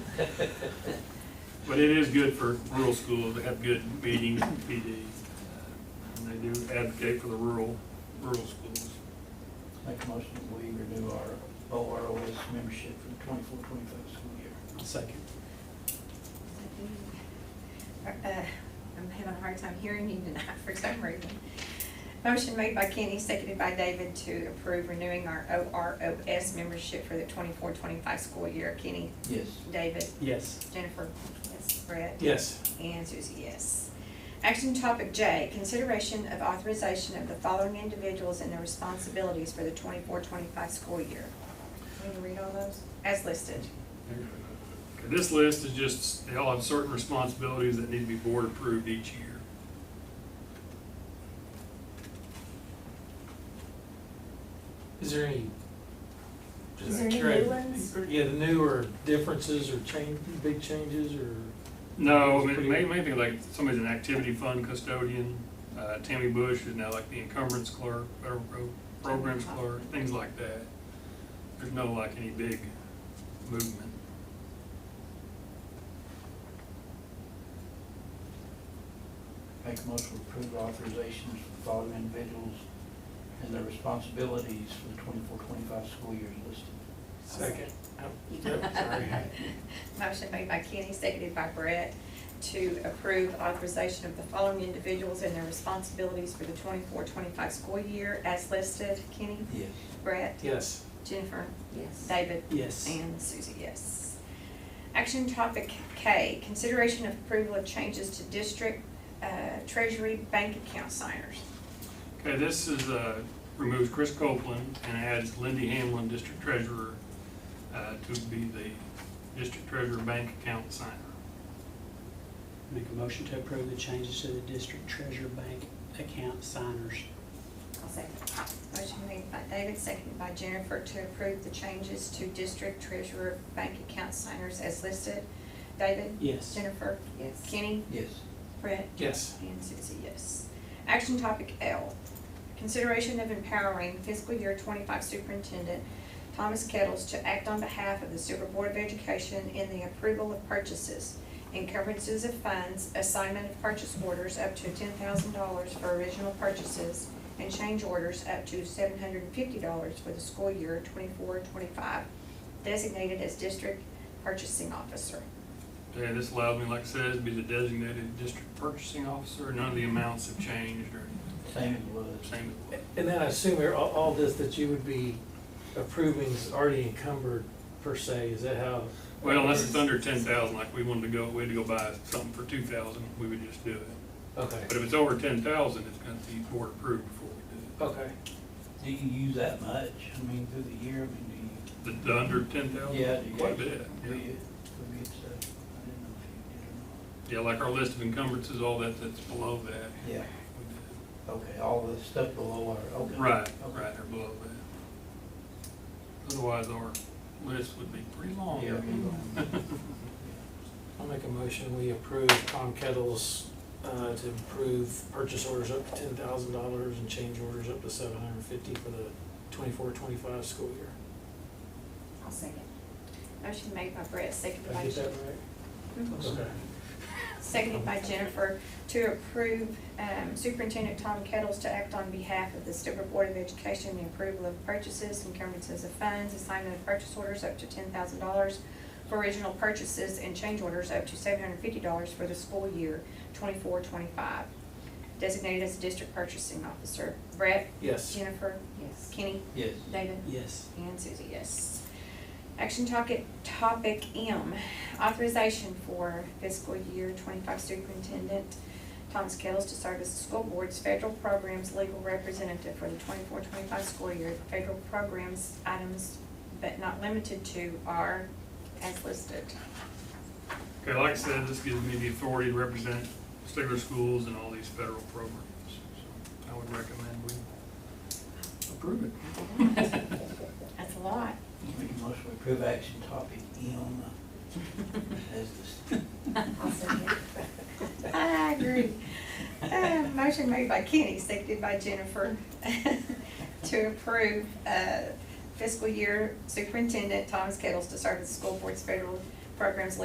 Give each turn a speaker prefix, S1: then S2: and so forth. S1: But it is good for rural schools to have good meetings, and PD, and they do advocate for the rural, rural schools.
S2: Make a motion that we renew our OROS membership for the twenty-four, twenty-five school year.
S3: Second.
S4: Uh, I'm having a hard time hearing you tonight for some reason. Motion made by Kenny, seconded by David to approve renewing our OROS membership for the 24-25 school year. Kenny,
S2: Yes.
S4: David,
S3: Yes.
S4: Jennifer, yes, Brett,
S3: Yes.
S4: and Susie, yes. Action topic J, consideration of authorization of the following individuals and their responsibilities for the 24-25 school year. Need to read all those? As listed.
S1: And This list is just, they all have certain responsibilities that need to be board approved each year.
S3: Is there any?
S5: Is there any
S3: Correct.
S5: new ones?
S3: Yeah, the new or differences or change, big changes or?
S1: No, it may, maybe like somebody's an activity fund custodian, uh, Tammy Bush is now like the encumbrance clerk, federal pro- programs clerk, things like that. There's no like any big movement.
S2: Make a motion to approve authorizations for the following individuals and their responsibilities for the twenty-four, twenty-five school year is listed.
S3: Second. Oh, Yep, sorry.
S4: Motion made by Kenny, seconded by Brett, to approve authorization of the following individuals and their responsibilities for the 24-25 school year as listed. Kenny,
S2: Yes.
S4: Brett,
S3: Yes.
S4: Jennifer,
S5: Yes.
S4: David,
S3: Yes.
S4: and Susie, yes. Action topic K, consideration of approval of changes to district uh, treasury bank account signers.
S1: Okay, this is, uh, removes Chris Copeland and adds Lindy Hamlin, district treasurer, uh, to be the district treasurer bank account signer.
S6: Make a motion to approve the changes to the district treasurer bank account signers.
S4: I'll second. Motion made by David, seconded by Jennifer to approve the changes to district treasurer bank account signers as listed. David?
S6: Yes.
S4: Jennifer?
S5: Yes.
S4: Kenny?
S2: Yes.
S4: Brett?
S3: Yes.
S4: And Susie, yes. Action topic L, consideration of empowering fiscal year twenty-five superintendent Thomas Kettles to act on behalf of the Super Board of Education in the approval of purchases, encumbrances of funds, assignment of purchase orders up to ten thousand dollars for original purchases, and change orders up to seven hundred and fifty dollars for the school year 24-25, designated as district purchasing officer.
S1: Okay, this allows me, like I said, to be the designated district purchasing officer. None of the amounts have changed or
S2: Same as was.
S1: same as
S3: And then I assume you're- all, all this that you would be approving is already encumbered per se, is that how?
S1: Well, unless it's under ten thousand, like we wanted to go, we had to go buy something for two thousand, we would just do it.
S3: Okay,
S1: But if it's over ten thousand, it's gonna be board approved before we
S3: okay.
S2: Do you use that much? I mean, through the year, I mean,
S1: do it. The, the under ten thousand?
S2: Yeah, do you
S1: Quite a
S2: guys-
S1: bit,
S2: do you, do
S1: yeah.
S2: you get stuff? uh, I didn't know if
S1: Yeah, like our list of encumbrances, all that, that's below that.
S2: you did or not.
S1: we do.
S2: Yeah, okay, all the stuff below our, okay.
S1: Right,
S2: Okay.
S1: right, or below that. Otherwise, our list would be pretty long.
S2: Yeah, okay.
S3: I'll make a motion, we approve Tom Kettles, uh, to approve purchase orders up to ten thousand dollars and change orders up to seven hundred and fifty for the twenty-four, twenty-five school year.
S4: I'll second. Motion made by Brett, seconded
S3: Did I
S4: by
S3: get that
S4: Jennifer.
S3: right?
S4: Mhm.
S3: Okay.
S4: Seconded by Jennifer to approve um, Superintendent Tom Kettles to act on behalf of the Sturbridge Board of Education, the approval of purchases, encumbrances of funds, assignment of purchase orders up to ten thousand dollars for original purchases and change orders up to seven hundred and fifty dollars for the school year twenty-four, twenty-five. Designated as District Purchasing Officer. Brett?
S3: Yes.
S4: Jennifer?
S5: Yes.
S4: Kenny?
S2: Yes.
S4: David?
S6: Yes.
S4: And Susie, yes. Action topic, topic M, authorization for fiscal year twenty-five superintendent Thomas Kettles to serve as the school board's federal programs legal representative for the 24-25 school year. Federal programs items, but not limited to, are as listed.
S1: Okay, like I said, this gives me the authority to represent Stigler schools and all these federal programs. So I would recommend we approve it.
S4: That's a lot.
S2: Make a motion to approve action topic M as the,
S4: I agree. Uh, Motion made by Kenny, seconded by Jennifer, to approve uh, fiscal year superintendent Thomas Kettles to serve as the school board's federal programs